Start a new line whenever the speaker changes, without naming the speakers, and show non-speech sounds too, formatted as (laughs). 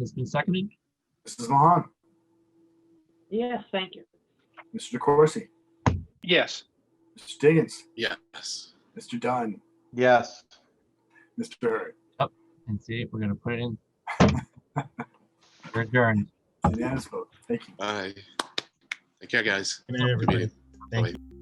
It's been seconded.
Mrs. Mahan,
Yes, thank you.
Mr. DeCoursey,
Yes.
Mr. Diggins,
Yes.
Mr. Dunn,
Yes.
Mr. Hurd.
And see, we're gonna put
(laughs)
it in. We're adjourned.
Unanimous vote. Thank you.
Bye. Take care, guys.
Good night, everybody.
meeting.
Thank
Bye.
you.